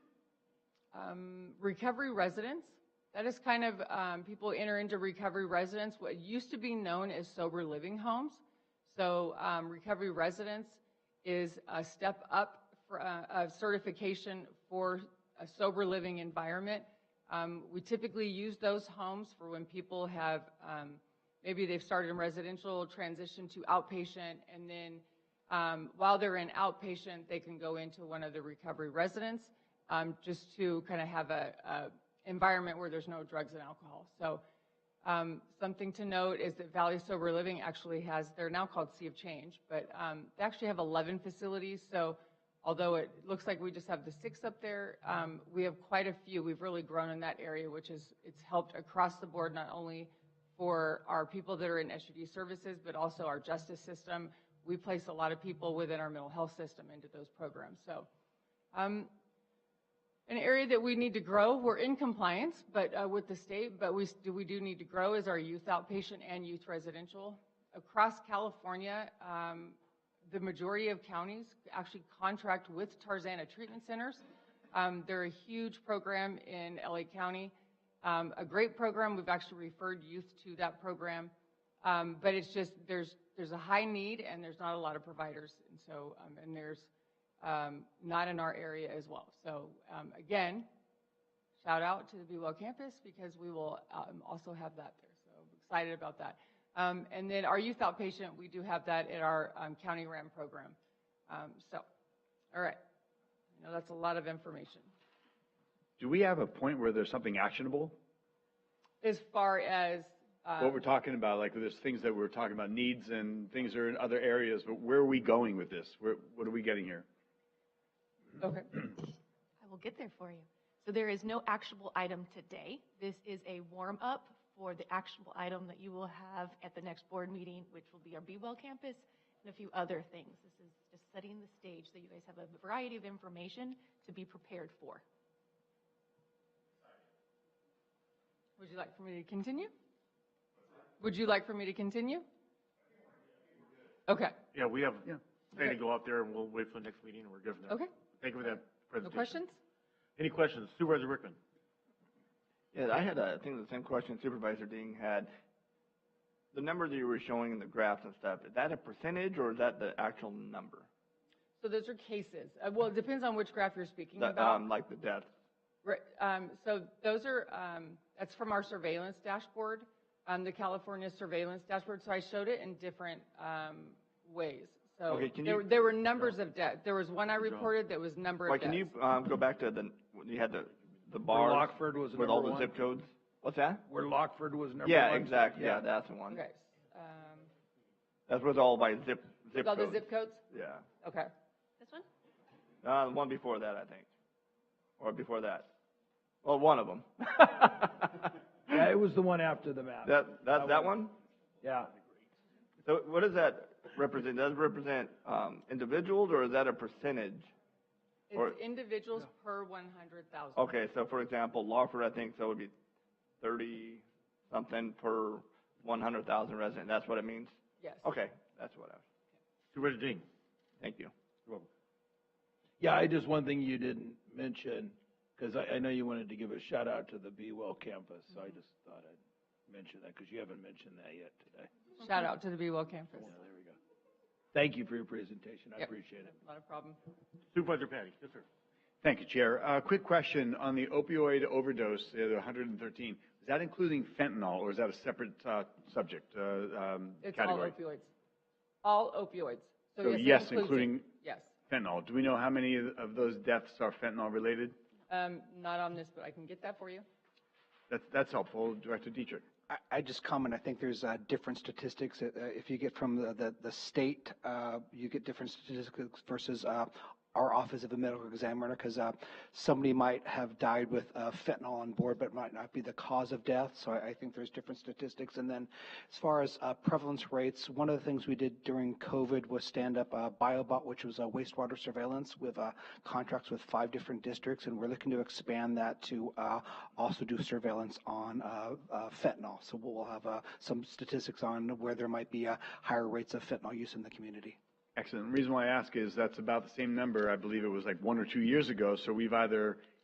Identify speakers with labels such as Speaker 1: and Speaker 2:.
Speaker 1: um, recovery residence. That is kind of, um, people enter into recovery residence, what used to be known as sober living homes. So um, recovery residence is a step up for, uh, of certification for a sober living environment. Um, We typically use those homes for when people have, um, maybe they've started in residential, transitioned to outpatient, and then um, while they're in outpatient, they can go into one of the recovery residents, um, just to kind of have a, a environment where there's no drugs and alcohol. So, um, something to note is that Valley Sober Living actually has, they're now called Sea of Change, but, um, they actually have 11 facilities, so although it looks like we just have the six up there, um, we have quite a few. We've really grown in that area, which is, it's helped across the board, not only for our people that are in SUD services, but also our justice system. We place a lot of people within our mental health system into those programs. So, um, an area that we need to grow, we're in compliance, but, uh, with the state, but we, s- do, we do need to grow is our youth outpatient and youth residential. Across California, um, the majority of counties actually contract with Tarzana treatment centers. Um, they're a huge program in LA County, um, a great program. We've actually referred youth to that program. Um, but it's just, there's, there's a high need and there's not a lot of providers. And so, um, and there's, um, not in our area as well. So, um, again, shout out to the Be Well campus because we will, um, also have that there. So I'm excited about that. Um, and then our youth outpatient, we do have that in our, um, county RAM program. Um, so, all right. I know that's a lot of information.
Speaker 2: Do we have a point where there's something actionable?
Speaker 1: As far as, um,
Speaker 2: What we're talking about, like there's things that we're talking about, needs and things are in other areas, but where are we going with this? Where, what are we getting here?
Speaker 1: okay.
Speaker 3: I will get there for you. So there is no actionable item today. This is a warm-up for the actionable item that you will have at the next board meeting, which will be our Be Well campus and a few other things. This is just setting the stage so you guys have a variety of information to be prepared for.
Speaker 1: Would you like for me to continue? Would you like for me to continue? Okay,
Speaker 4: Yeah, we have,
Speaker 2: Yeah.
Speaker 4: plan to go out there and we'll wait for the next meeting and we're good from there.
Speaker 1: okay.
Speaker 4: Thank you for that
Speaker 1: No
Speaker 4: presentation.
Speaker 1: questions?
Speaker 4: Any questions? Supervisor Rickman?
Speaker 5: Yeah, I had, uh, I think, the same question Supervisor Ding had. The number that you were showing in the graphs and stuff, is that a percentage or is that the actual number?
Speaker 1: So those are cases. Uh, Well, it depends on which graph you're speaking
Speaker 5: That,
Speaker 1: about.
Speaker 5: um, like the deaths?
Speaker 1: Right, um, so those are, um, that's from our surveillance dashboard, um, the California surveillance dashboard. So I showed it in different, um, ways. So
Speaker 5: Okay, can
Speaker 1: there,
Speaker 5: you-
Speaker 1: there were numbers of death. There was one I reported that was number
Speaker 5: Wait,
Speaker 1: of
Speaker 5: can you,
Speaker 1: deaths.
Speaker 5: um, go back to the, when you had the, the bars?
Speaker 6: Lockford was
Speaker 5: With all
Speaker 6: number
Speaker 5: the zip
Speaker 6: one?
Speaker 5: codes? What's that?
Speaker 6: Where Lockford was number one.
Speaker 5: Yeah, exactly, yeah, that's the one.
Speaker 1: Okay, um,
Speaker 5: That's with all by zip, zip
Speaker 1: with all
Speaker 5: codes.
Speaker 1: the zip codes?
Speaker 5: Yeah.
Speaker 1: Okay.
Speaker 3: This one?
Speaker 5: Uh, the one before that, I think. Or before that. Well, one of them.
Speaker 6: Yeah, it was the one after the map.
Speaker 5: That, that, that one?
Speaker 6: Yeah.
Speaker 5: So what does that represent? Does it represent um, individuals or is that a percentage? Or-
Speaker 1: It's individuals per 100,000.
Speaker 5: Okay, so for example, Lawford, I think, so would be thirty something per one hundred thousand resident. That's what it means?
Speaker 1: Yes.
Speaker 5: Okay, that's what I was,
Speaker 4: Supervisor Dean?
Speaker 5: thank you.
Speaker 6: Yeah, I just, one thing you didn't mention, because I, I know you wanted to give a shout out to the Be Well campus, so I just thought I'd mention that, because you haven't mentioned that yet today.
Speaker 1: Shout out to the Be Well campus.
Speaker 6: Yeah, there we go. Thank you for your presentation. I
Speaker 1: Yep.
Speaker 6: appreciate it.
Speaker 1: Not a problem.
Speaker 4: Supervisor Patty? Yes, sir.
Speaker 2: Thank you, Chair. Uh, quick question on the opioid overdose, uh, the 113. Is that including fentanyl or is that a separate, uh, subject, uh, um,
Speaker 1: It's all
Speaker 2: category?
Speaker 1: opioids. All opioids.
Speaker 2: So
Speaker 1: it
Speaker 2: yes,
Speaker 1: includes it.
Speaker 2: including-
Speaker 1: Yes.
Speaker 2: Fentanyl. Do we know how many of- of those deaths are fentanyl related?
Speaker 1: Um, not on this, but I can get that for you.
Speaker 2: That's, that's helpful, Director Dietrich.
Speaker 7: I- I just comment, I think there's uh, different statistics. Uh, uh, If you get from the- the the state, uh, you get different statistics versus uh, our Office of a Medical Examiner, because somebody might have died with uh, fentanyl on board, but might not be the cause of death. So I I think there's different statistics. And then as far as uh, prevalence rates, one of the things we did during COVID was stand up uh, BioBot, which was a wastewater surveillance with uh, contracts with five different districts, and we're looking to expand that to uh, also do surveillance on uh, uh, fentanyl. So we'll have uh, some statistics on where there might be uh, higher rates of fentanyl use in the community.
Speaker 2: Excellent. The reason why I ask is that's about the same number, I believe it was like one or two years ago. So we've either